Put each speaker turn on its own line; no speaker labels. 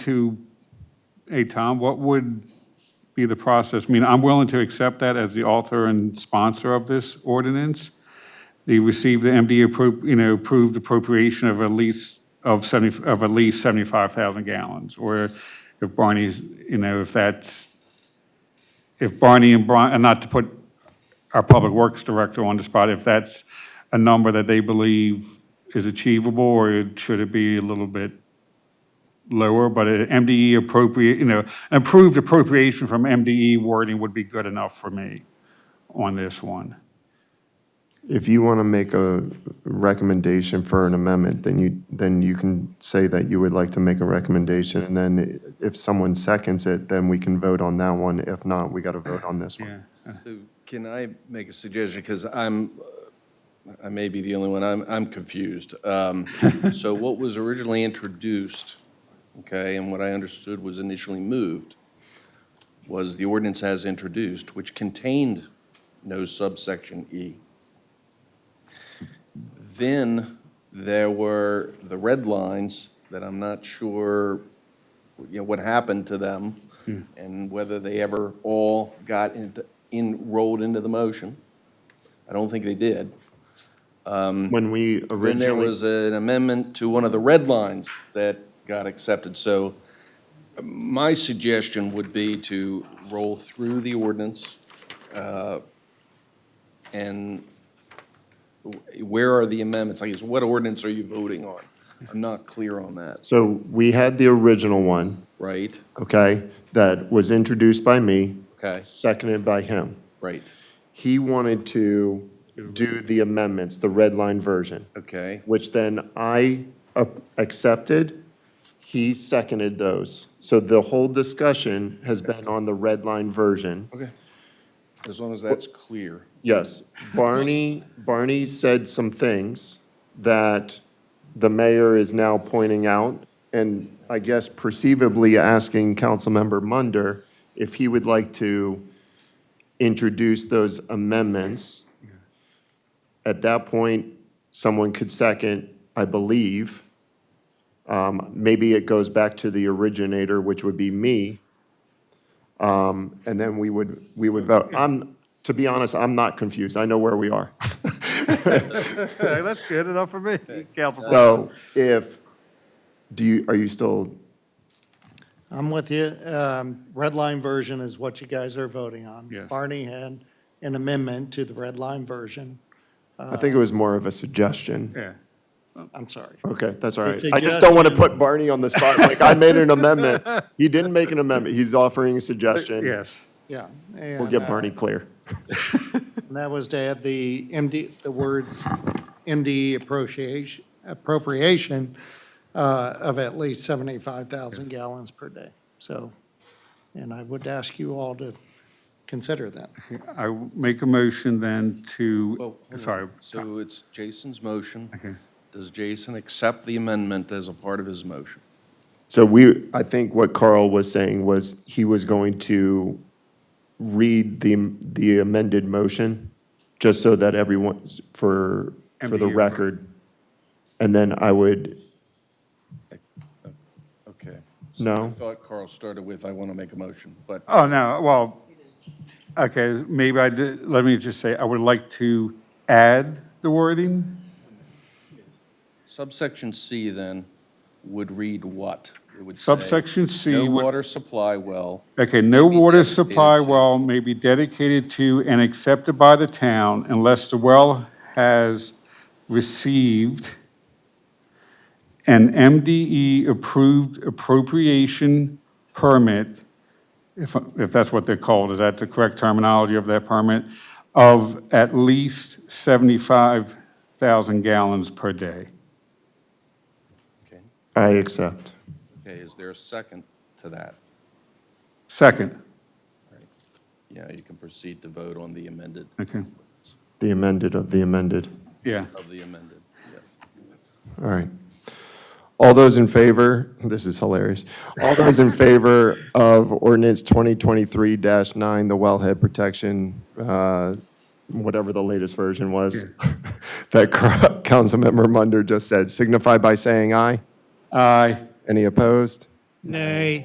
to, hey, Tom, what would be the process? I mean, I'm willing to accept that as the author and sponsor of this ordinance. They received the MD appro, you know, approved appropriation of at least, of 70, of at least 75,000 gallons. Or if Barney's, you know, if that's, if Barney and Brian, and not to put our Public Works Director on the spot, if that's a number that they believe is achievable, or should it be a little bit lower, but an MDE appropriate, E you know, approved appropriation from MDE wording would be good enough for me on this one.
If you want to make a recommendation for an amendment, then you, then you can say that you would like to make a recommendation. And then if someone seconds it, then we can vote on that one. If not, we got to vote on this one.
So Can I make a suggestion? Because I'm, uh, I may be the only one, I'm, I'm confused. Um, So what was originally introduced, okay, and what I understood was initially moved, was the ordinance as introduced, which contained no subsection E. Then there were the red lines that I'm not sure, you know, what happened to them and whether they ever all got into- enrolled into the motion. I don't think they did.
When we
Then there
originally,
was an amendment to one of the red lines that got accepted. So uh, my suggestion would be to roll through the ordinance. uh, And wh- where are the amendments? I guess, what ordinance are you voting on? I'm not clear on that,
so we had the original one,
right?
okay, that was introduced by me.
Okay.
Seconded by him.
Right,
He wanted to do the amendments, the red line version.
okay,
which then I a- accepted. He seconded those. So the whole discussion has been on the red line version.
okay. As long as that's clear.
Yes, Barney, Barney said some things that the mayor is now pointing out, and I guess perceivably asking Councilmember Munder if he would like to introduce those amendments. At that point, someone could second, I believe. Um, Maybe it goes back to the originator, which would be me. Um, And then we would, we would vote. I'm, to be honest, I'm not confused. I know where we are.
That's good enough for me.
So
Uh,
if, do you, are you still,
I'm with you. Um, Red line version is what you guys are voting on.
Yes.
Barney had an amendment to the red line version.
I think it
Uh,
was more of a suggestion.
Yeah,
I'm sorry.
Okay, that's all
A
right. I just don't want to
suggestion.
put Barney on the spot, like, I made an amendment. He didn't make an amendment. He's offering a suggestion.
yes.
Yeah. uh,
We'll get Barney clear.
And that was to add the MD, the words MDE appropriation, appropriation uh, of at least 75,000 gallons per day. So, and I would ask you all to consider that.
I w- make a motion then
Well,
to,
hold on.
sorry,
So it's Jason's motion.
Okay.
Does Jason accept the amendment as a part of his motion?
So we, I think what Carl was saying was he was going to read the, the amended motion, just so that everyone, for, for the
MDU.
record. And then I would,
Okay. I
no,
thought Carl started with, I want to make a motion, but
oh, no, well, okay, maybe I did, let me just say, I would like to add the wording.
subsection C then would read what? It would say,
Subsection C
No
would-
water supply well,
Okay, no water
dedicated
supply
to-
well may be dedicated to and accepted by the town unless the well has received an MDE-approved appropriation permit, if, if that's what they're called, is that the correct terminology of that permit? Of at least 75,000 gallons per day.
okay?
I accept.
Okay, is there a second to that?
Second,
Yeah, you can proceed to vote on the amended,
okay,
The amended of the amended.
yeah.
of the amended, yes.
All right. All those in favor, this is hilarious. All those in favor of ordinance 2023-9, the wellhead protection, uh, whatever the latest version was, that Car- Councilmember Munder just said, signify by saying aye.
Aye.
Any opposed?
Nay.